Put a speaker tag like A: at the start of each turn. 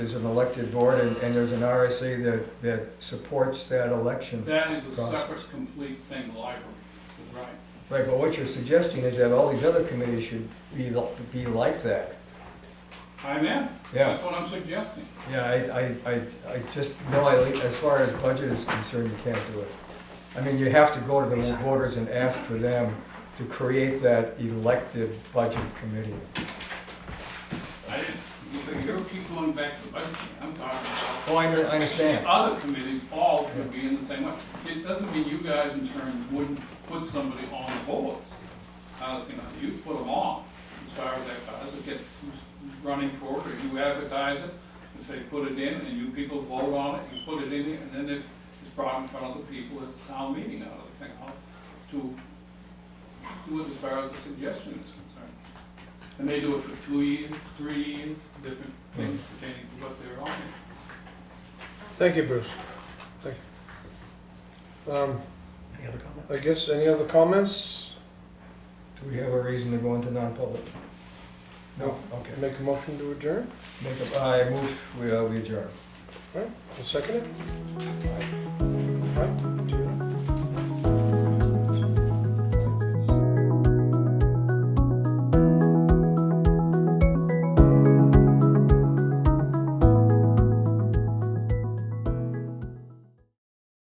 A: There's an elected board and, and there's an RSA that, that supports that election.
B: That is a
A: Cost.
B: separate, complete thing, the library, is right.
A: Right, but what you're suggesting is that all these other committees should be, li- be like that.
B: I'm in,
A: Yeah,
B: that's what I'm suggesting.
A: yeah, I, I, I, I just, no, I, as far as budget is concerned, you can't do it. I mean, you have to go to the voters and ask for them to create that elected budget committee.
B: I didn't, you- you keep going back to budget, I'm talking about.
A: Oh, I, under- I
B: The
A: understand.
B: other committees all should be in the same way. It doesn't mean you guys in turn wouldn't put somebody on the boards. Uh, you know, you put them on, as far as that goes, it gets who's running for it, or you advertise it, if they put it in, and you people vote on it, you put it in, and then it- it's brought in front of the people at the town meeting, I don't think, how to do it as far as the suggestion is concerned. And they do it for two years, three years, different things pertaining to what they're on.
C: Thank you, Bruce. Thank you. Um,
D: Any other comments?
C: I guess, any other comments?
A: Do we have a reason to go into non-public? No, okay.
C: Make a motion to adjourn?
A: Make a, I move, we, uh, we adjourn.
C: All right, I'll second it. All right, do you?